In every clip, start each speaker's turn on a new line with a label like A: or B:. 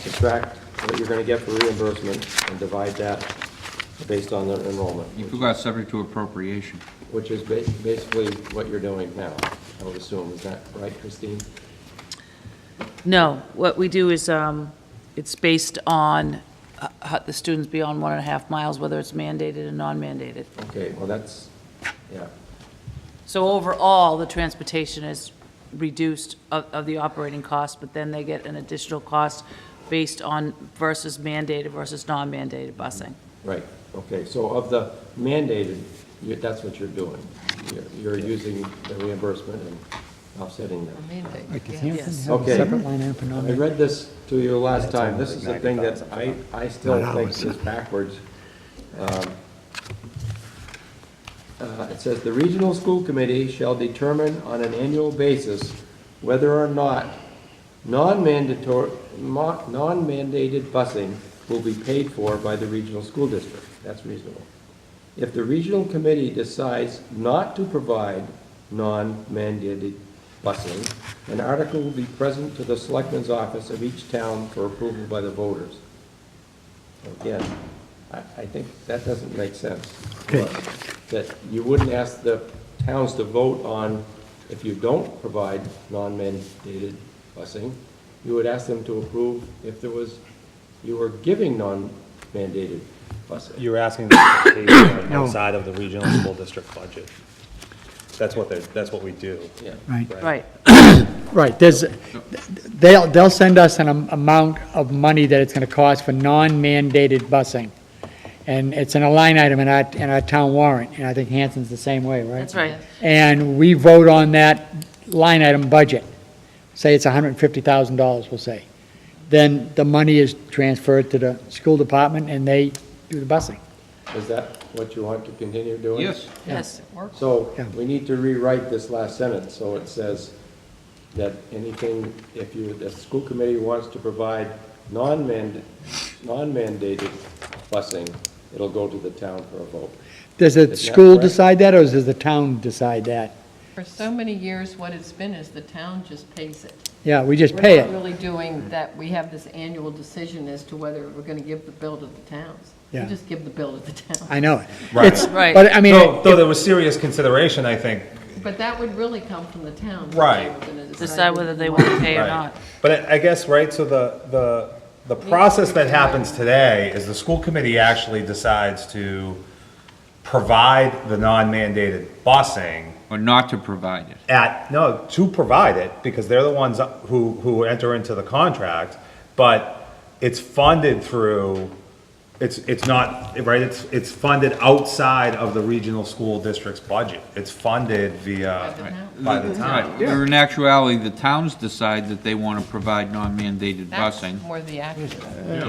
A: subtract what you're gonna get for reimbursement and divide that based on the enrollment,
B: You forgot subject to appropriation.
A: which is ba- basically what you're doing now, I would assume. Is that right, Christine?
C: No, what we do is, um, it's based on uh, how the students beyond one and a half miles, whether it's mandated or non-mandated.
A: Okay, well, that's, yeah.
C: So overall, the transportation is reduced of, of the operating cost, but then they get an additional cost based on versus mandated versus non-mandated busing.
A: Right, okay, so of the mandated, you- that's what you're doing. You're- You're using the reimbursement and offsetting that.
D: Like, does Hampton
C: Yes.
D: have
A: Okay.
D: a separate line item for
A: I
D: non-mandated?
A: read this to you last time, this is the thing that I, I still think is backwards. Um, uh, It says, "The regional school committee shall determine on an annual basis whether or not non-mandatory, mo- non-mandated busing will be paid for by the regional school district." That's reasonable. If the regional committee decides not to provide non-mandated busing, an article will be present to the selectman's office of each town for approval by the voters. Again, I, I think that doesn't make sense. That you wouldn't ask the towns to vote on, if you don't provide non-mandated busing, you would ask them to approve if there was, you were giving non-mandated busing.
E: You're asking them to pay for it
D: No.
E: outside of the regional school district budget. That's what they, that's what we do.
A: Yeah.
D: Right,
C: Right,
D: right, there's, they'll, they'll send us an am- amount of money that it's gonna cost for non-mandated busing. And it's in a line item in our, in our town warrant, and I think Hanson's the same way, right?
C: that's right.
D: And we vote on that line item budget, say it's hundred and fifty thousand dollars, we'll say. Then the money is transferred to the school department and they do the busing.
A: Is that what you want to continue doing?
B: Yes,
C: Yes,
A: So
D: Yeah.
A: we need to rewrite this last sentence, so it says that anything, if you, the school committee wants to provide non-mandated, non-mandated busing, it'll go to the town for a vote.
D: Does
A: that
D: the school
A: correct?
D: decide that, or does the town decide that?
F: For so many years, what it's been is the town just pays it.
D: Yeah, we just pay
F: We're not
D: it,
F: really doing that, we have this annual decision as to whether we're going to give the bill to the towns. We
D: Yeah.
F: just give the bill to the towns.
D: I know it.
E: Right.
D: It's-
C: Right.
D: But, I mean,
E: Though, though there was serious consideration, I think,
F: But that would really come from the town.
E: Right.
C: decide whether they want to pay or
E: Right.
C: not.
E: But I- I guess, right, so the, the, the process that happens today is the school committee actually decides to provide the non-mandated busing
B: or not to provide it.
E: at, no, to provide it, because they're the ones who, who enter into the contract, but it's funded through, it's, it's not, right, it's, it's funded outside of the regional school district's budget. It's funded
F: By the
E: via,
F: town.
E: by the
B: Right,
E: town.
B: where in actuality, the towns decide that they want to provide non-mandated
F: That's
B: busing.
F: more the action.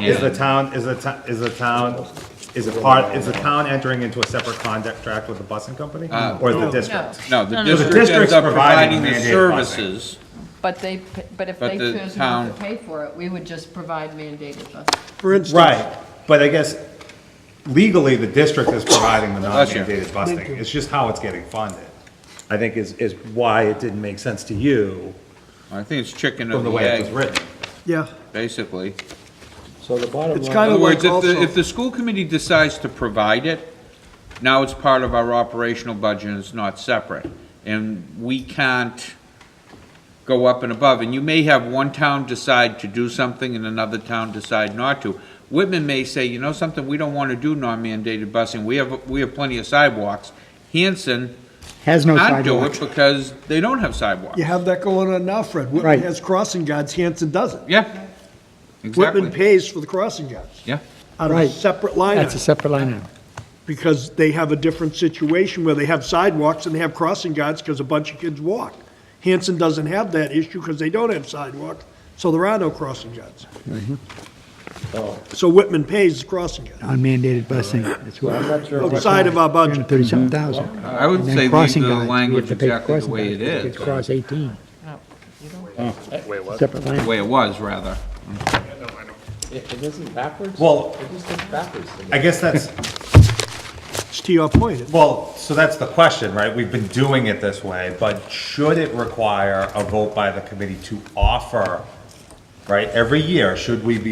E: Is the
B: and-
E: town, is the town, is the town, is it part, is the town entering into a separate contract with the busing company? Or the district?
B: Uh, No, the
C: No, no, no.
B: district ends
E: district's
B: up
E: providing
B: providing the
E: mandated busing.
B: services.
F: But they, p- but if
B: But
F: they
B: the
F: chose not
B: town-
F: to pay for it, we would just provide mandated buses.
G: For instance,
E: Right, but I guess legally, the district is providing the
B: Bless you.
E: non-mandated busing. It's just how it's getting funded, I think is, is why it didn't make sense to you
B: I think it's chicken
E: from
B: of
E: the
B: the
E: way it was
B: egg,
E: written.
G: yeah,
B: basically.
A: So the bottom
G: It's
A: line,
B: In
G: kind
B: other
G: of-
B: words, if the,
G: Also-
B: if the school committee decides to provide it, now it's part of our operational budget and it's not separate. And we can't go up and above. And you may have one town decide to do something and another town decide not to. Whitman may say, you know something, we don't want to do non-mandated busing. We have, we have plenty of sidewalks. Hanson
D: has no
B: can't do it
D: sidewalks.
B: because they don't have sidewalks.
G: you have that going on now, Fred. Whitman
D: Right.
G: has crossing guards, Hanson doesn't.
B: Yeah,
G: Whitman
B: exactly.
G: pays for the crossing guards
B: Yeah,
G: out of a
D: Right.
G: separate line
D: That's a
G: item,
D: separate line item.
G: because they have a different situation where they have sidewalks and they have crossing guards because a bunch of kids walk. Hanson doesn't have that issue because they don't have sidewalks, so there are no crossing guards.
D: Mm-hmm.
A: oh,
G: So Whitman pays the crossing guards
D: Unmandated busing, that's
A: I'm
D: what,
A: not sure what,
G: outside of our budget.
D: thirty-something thousand.
B: I would
D: And then
B: say leave
D: crossing
B: the
D: guards, we have
B: language
D: to pay for
B: exactly the
D: crossing
B: way
D: guards,
B: it is.
D: because it's Cross eighteen,
F: No, Oh, you don't.
D: separate line.
B: the way it was, rather.
A: it it isn't backwards?
E: Well-
A: It just is backwards to me.
E: I guess that's,
G: It's to your point.
E: well, so that's the question, right? We've been doing it this way, but should it require a vote by the committee to offer, right, every year, should we be